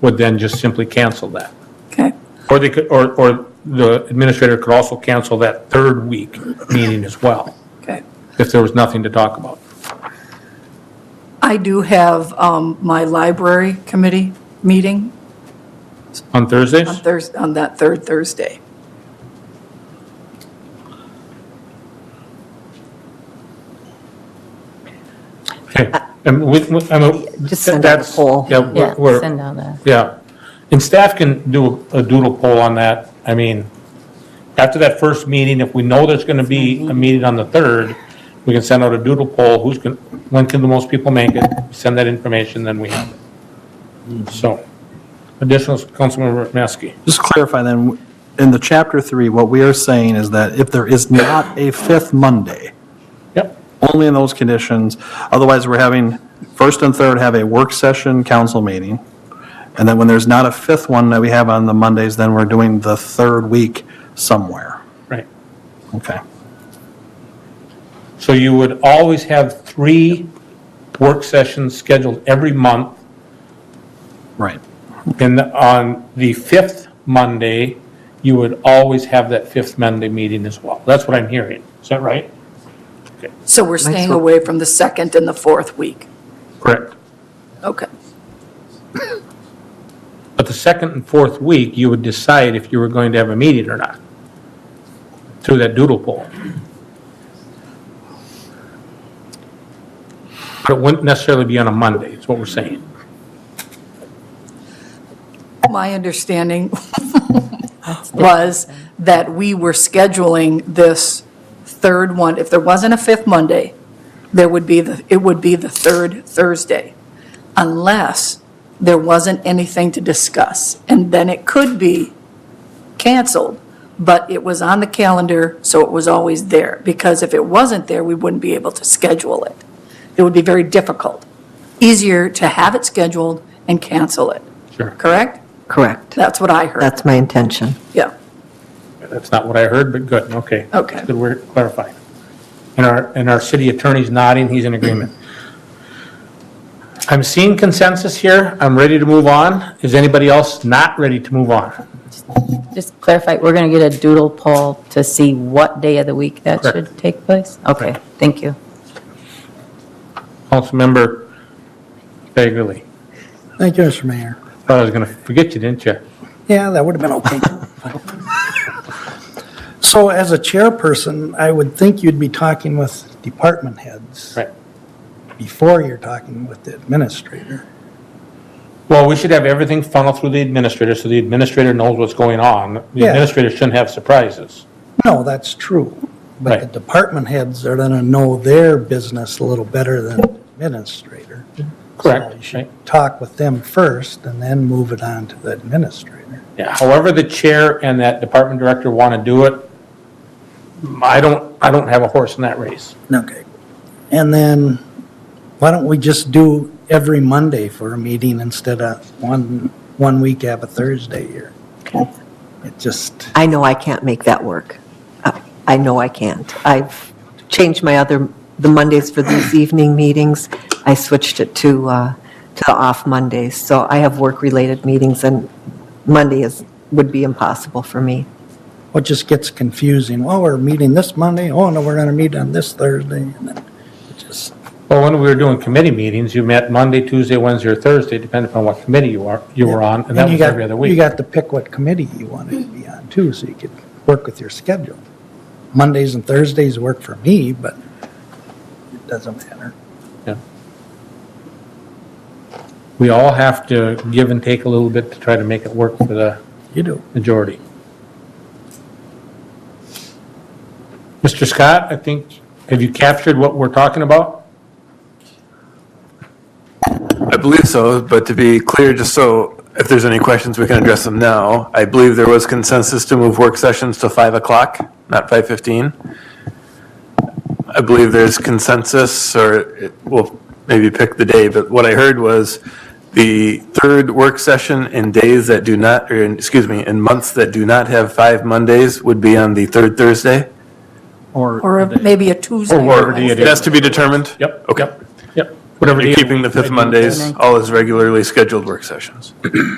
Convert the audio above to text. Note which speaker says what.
Speaker 1: would then just simply cancel that.
Speaker 2: Okay.
Speaker 1: Or they could, or, or the administrator could also cancel that third week meeting as well,
Speaker 2: Okay.
Speaker 1: if there was nothing to talk about.
Speaker 2: I do have um, my library committee meeting
Speaker 1: On
Speaker 2: on
Speaker 3: Um,
Speaker 1: Thursdays,
Speaker 2: Thursday, on that third Thursday.
Speaker 1: okay, and we, we- I mean.
Speaker 3: Just send out a
Speaker 1: that's-
Speaker 3: poll.
Speaker 1: Yeah, we're-
Speaker 4: Yeah,
Speaker 1: we're-
Speaker 4: send out a,
Speaker 1: Yeah, and staff can do a doodle poll on that. I mean, after that first meeting, if we know there's gonna be a meeting on the third, we can send out a doodle poll, who's gonna, when can the most people make it? Send that information, then we have it. So, additional, Councilmember Maskey.
Speaker 5: Just to clarify then, in the chapter three, what we are saying is that if there is not a fifth Monday,
Speaker 1: Yep,
Speaker 5: only in those conditions, otherwise we're having, first and third have a work session council meeting. And then when there's not a fifth one that we have on the Mondays, then we're doing the third week somewhere.
Speaker 1: right.
Speaker 5: Okay.
Speaker 1: So you would always have three work sessions scheduled every month.
Speaker 5: Right.
Speaker 1: And on the fifth Monday, you would always have that fifth Monday meeting as well. That's what I'm hearing. Is that right?
Speaker 2: So we're staying away from the second and the fourth week.
Speaker 1: Correct.
Speaker 2: Okay.
Speaker 1: But the second and fourth week, you would decide if you were going to have a meeting or not through that doodle poll. But it wouldn't necessarily be on a Monday, is what we're saying.
Speaker 2: My understanding was that we were scheduling this third one, if there wasn't a fifth Monday, there would be, the it would be the third Thursday, unless there wasn't anything to discuss. And then it could be canceled, but it was on the calendar, so it was always there. Because if it wasn't there, we wouldn't be able to schedule it. It would be very difficult. Easier to have it scheduled and cancel it.
Speaker 1: Sure.
Speaker 2: Correct?
Speaker 3: Correct.
Speaker 2: That's what I heard,
Speaker 3: That's my intention.
Speaker 2: yeah.
Speaker 1: That's not what I heard, but good, okay.
Speaker 2: Okay.
Speaker 1: Good, we're clarifying. And our, and our city attorney's nodding, he's in agreement. I'm seeing consensus here, I'm ready to move on. Is anybody else not ready to move on?
Speaker 4: just clarify, we're going to get a doodle poll to see what day of the week that
Speaker 1: Correct.
Speaker 4: should take place? Okay,
Speaker 1: Correct.
Speaker 4: thank you.
Speaker 1: Councilmember Bagley,
Speaker 6: Thank you, Mr. Mayor.
Speaker 1: thought I was gonna forget you, didn't you?
Speaker 6: Yeah, that would have been okay. So as a chairperson, I would think you'd be talking with department heads
Speaker 1: Right.
Speaker 6: before you're talking with the administrator.
Speaker 1: Well, we should have everything funneled through the administrator, so the administrator knows what's going on. The
Speaker 6: Yeah.
Speaker 1: administrator shouldn't have surprises.
Speaker 6: No, that's true. But the
Speaker 1: Right.
Speaker 6: department heads are gonna know their business a little better than the administrator. So you
Speaker 1: Correct, right?
Speaker 6: should talk with them first and then move it on to the administrator.
Speaker 1: Yeah, however the chair and that department director want to do it, I don't, I don't have a horse in that race.
Speaker 6: Okay. And then, why don't we just do every Monday for a meeting instead of one, one week have a Thursday here? It just,
Speaker 3: I know I can't make that work. I- I know I can't. I've changed my other, the Mondays for these evening meetings. I switched it to, uh, to the off Mondays. So I have work-related meetings and Monday is, would be impossible for me.
Speaker 6: what just gets confusing? Oh, we're meeting this Monday, oh, no, we're gonna meet on this Thursday, and then it just,
Speaker 1: Well, when we were doing committee meetings, you met Monday, Tuesday, Wednesday, or Thursday, depending upon what committee you are, you were on, and that
Speaker 6: you
Speaker 1: was
Speaker 6: got-
Speaker 1: every other
Speaker 6: You
Speaker 1: week.
Speaker 6: got to pick what committee you want to be on too, so you could work with your schedule. Mondays and Thursdays work for me, but it doesn't matter.
Speaker 1: Yeah. We all have to give and take a little bit to try to make it work for the
Speaker 6: You do.
Speaker 1: majority. Mr. Scott, I think, have you captured what we're talking about?
Speaker 7: I believe so, but to be clear, just so if there's any questions, we can address them now. I believe there was consensus to move work sessions to 5 o'clock, not 5:15. I believe there's consensus, or it- we'll maybe pick the day, but what I heard was the third work session in days that do not, or, in- excuse me, in months that do not have five Mondays would be on the third Thursday?
Speaker 2: Or a- maybe a Tuesday.
Speaker 1: whatever the
Speaker 2: Wednesday.
Speaker 1: idea.
Speaker 7: That's to be determined?
Speaker 1: Yep.
Speaker 7: Okay.
Speaker 1: Yep. Whatever.
Speaker 7: You're keeping the fifth Mondays, all as regularly scheduled work sessions?